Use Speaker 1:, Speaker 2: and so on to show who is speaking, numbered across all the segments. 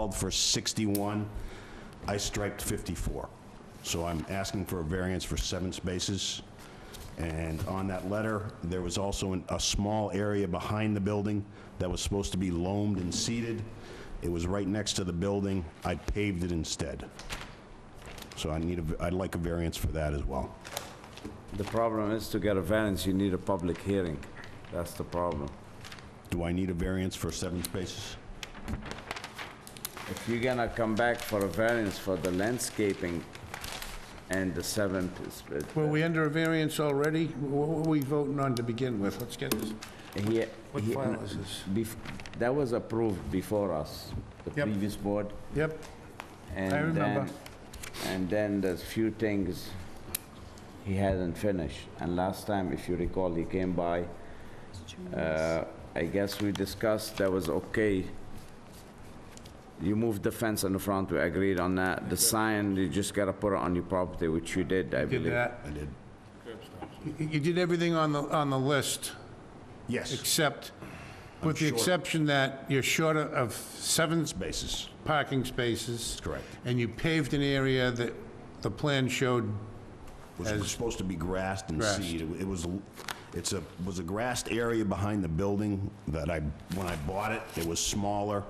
Speaker 1: called for 61, I striped 54. So I'm asking for a variance for seven spaces. And on that letter, there was also an- a small area behind the building that was supposed to be loamed and seeded. It was right next to the building. I paved it instead. So I need, a v- I'd like a variance for that as well.
Speaker 2: The problem is to get a variance, you need a public hearing. That's the problem.
Speaker 1: Do I need a variance for seven spaces?
Speaker 2: If you're gonna come back for a variance for the landscaping and the seven,
Speaker 3: Were we under a variance already? Wh- What were we voting on to begin with? Let's get this.
Speaker 2: he,
Speaker 3: What
Speaker 2: he-
Speaker 3: file is this?
Speaker 2: bef- that was approved before us, the
Speaker 3: Yep.
Speaker 2: previous board.
Speaker 3: Yep,
Speaker 2: and
Speaker 3: remember.
Speaker 2: then- And then there's few things he hadn't finished. And last time, if you recall, he came by, uh, I guess we discussed that was okay. You moved the fence in the front, we agreed on that. The sign, you just gotta put it on your property, which you did, I
Speaker 3: did
Speaker 2: believe.
Speaker 3: that.
Speaker 1: I did.
Speaker 3: You- You did everything on the, on the list,
Speaker 1: Yes,
Speaker 3: except, with the
Speaker 1: short.
Speaker 3: exception that you're short of- of seven sp-
Speaker 1: spaces,
Speaker 3: parking spaces,
Speaker 1: correct.
Speaker 3: and you paved an area that the plan showed,
Speaker 1: Which was supposed to be grassed and
Speaker 3: Grassed.
Speaker 1: seeded. It was, it's a, was a grassed area behind the building that I, when I bought it, it was smaller.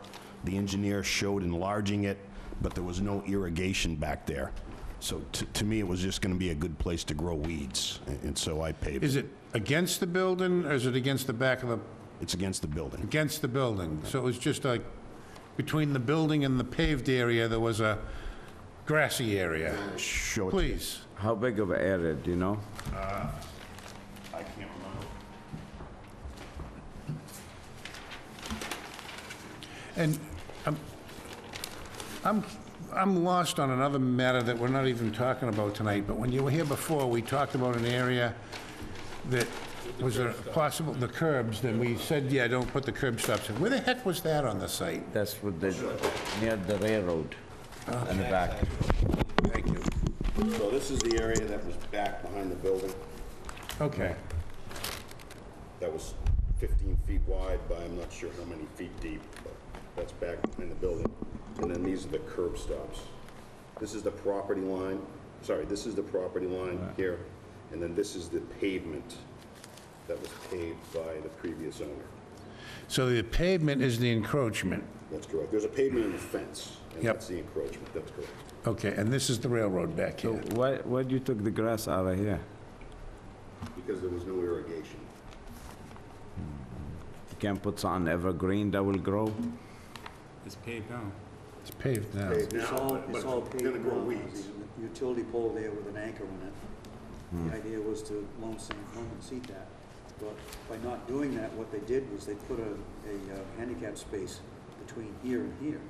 Speaker 1: The engineer showed enlarging it, but there was no irrigation back there. So to, to me, it was just gonna be a good place to grow weeds, and- and so I paved it.
Speaker 3: is it against the building, or is it against the back of the,
Speaker 1: It's against the building.
Speaker 3: against the building? So it was just like, between the building and the paved area, there was a grassy area.
Speaker 1: Show it.
Speaker 3: Please.
Speaker 2: How big of an area, do you know?
Speaker 1: I can't remember.
Speaker 3: And I'm, I'm, I'm lost on another matter that we're not even talking about tonight, but when you were here before, we talked about an area that was a possible, the curbs, then we said, yeah, don't put the curb stops in. Where the heck was that on the site?
Speaker 2: That's what the, near the railroad, in the back.
Speaker 3: Thank you.
Speaker 1: So this is the area that was back behind the building,
Speaker 3: Okay.
Speaker 1: that was 15 feet wide by I'm not sure how many feet deep, but that's back behind the building. And then these are the curb stops. This is the property line, sorry, this is the property line here, and then this is the pavement that was paved by the previous owner.
Speaker 3: So the pavement is the encroachment.
Speaker 1: That's correct. There's a pavement and a fence, and
Speaker 3: Yep.
Speaker 1: that's the encroachment, that's correct.
Speaker 3: Okay, and this is the railroad back here.
Speaker 2: Why, why you took the grass out of here?
Speaker 1: Because there was no irrigation.
Speaker 2: You can put some evergreen that will grow?
Speaker 4: It's paved now.
Speaker 3: It's paved now.
Speaker 1: Paved
Speaker 5: It's
Speaker 1: now,
Speaker 5: all,
Speaker 1: but-
Speaker 5: it's
Speaker 1: but
Speaker 5: all
Speaker 1: gonna
Speaker 5: paved
Speaker 1: grow
Speaker 5: now.
Speaker 1: weeds.
Speaker 5: There's a Utility pole there with an anchor on it. The idea was to loan some, loan and seat that. But by not doing that, what they did was they put a, a uh, handicap space between here and here.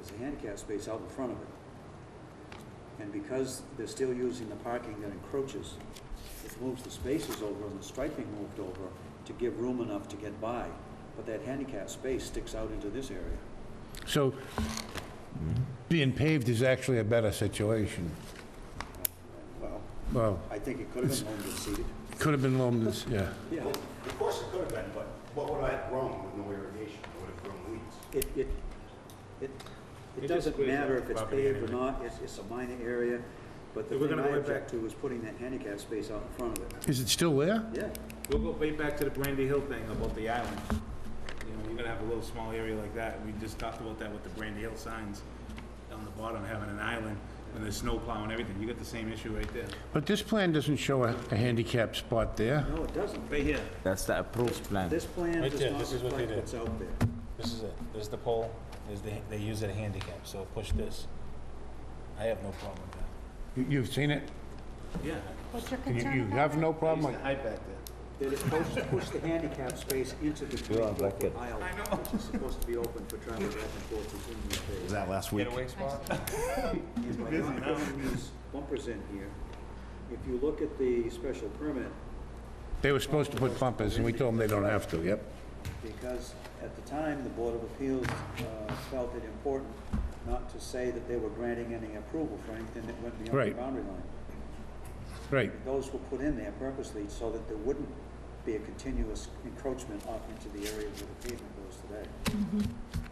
Speaker 5: There's a handicap space out in front of it. And because they're still using the parking that encroaches, it moves the spaces over and the striping moved over to give room enough to get by. But that handicap space sticks out into this area.
Speaker 3: So being paved is actually a better situation.
Speaker 5: Well,
Speaker 3: Well,
Speaker 5: I think it could have been loaned and seated.
Speaker 3: could have been loamed, this- yeah.
Speaker 5: Yeah,
Speaker 1: Of course it could have been, but what would I have grown with no irrigation? I would have grown weeds.
Speaker 5: it, it, it, it doesn't matter if it's paved or not, it's, it's a minor area, but the
Speaker 4: We're
Speaker 5: thing
Speaker 4: gonna
Speaker 5: I
Speaker 4: go
Speaker 5: object to is putting that handicap space out in front of it.
Speaker 3: Is it still there?
Speaker 5: Yeah,
Speaker 4: We'll go way back to the Brandy Hill thing about the island. You know, you're gonna have a little small area like that. We just talked about that with the Brandy Hill signs on the bottom, having an island, and there's snow plow and everything. You got the same issue right there.
Speaker 3: But this plan doesn't show a a handicap spot there.
Speaker 5: no, it doesn't.
Speaker 4: Right here.
Speaker 2: That's the approved plan.
Speaker 5: This plan
Speaker 6: Right
Speaker 5: does
Speaker 6: there,
Speaker 5: not
Speaker 6: this is what they
Speaker 5: reflect
Speaker 6: did.
Speaker 5: what's out there.
Speaker 6: This is it. This is the pole. This is the, they use it a handicap, so push this. I have no problem with that.
Speaker 3: You- You've seen it?
Speaker 4: Yeah.
Speaker 7: What's your
Speaker 3: You
Speaker 7: concern
Speaker 3: you
Speaker 7: about
Speaker 3: have
Speaker 7: it?
Speaker 3: no
Speaker 4: Used
Speaker 3: problem?
Speaker 4: to
Speaker 3: with-
Speaker 4: hide back there.
Speaker 5: They're supposed to push the handicap space into the
Speaker 2: You are
Speaker 5: twenty-foot
Speaker 2: wicked.
Speaker 5: aisle, which is supposed to be open for travel back and forth between the space.
Speaker 1: Was that last week?
Speaker 5: And by not putting these bumpers in here, if you look at the special permit,
Speaker 3: They were supposed to put bumpers, and we told them they don't have to, yep.
Speaker 5: because at the time, the Board of Appeals uh, felt it important not to say that they were granting any approval for anything that went beyond the
Speaker 3: Right.
Speaker 5: boundary line.
Speaker 3: Right.
Speaker 5: Those were put in there purposely so that there wouldn't be a continuous encroachment off into the area where the pavement goes today.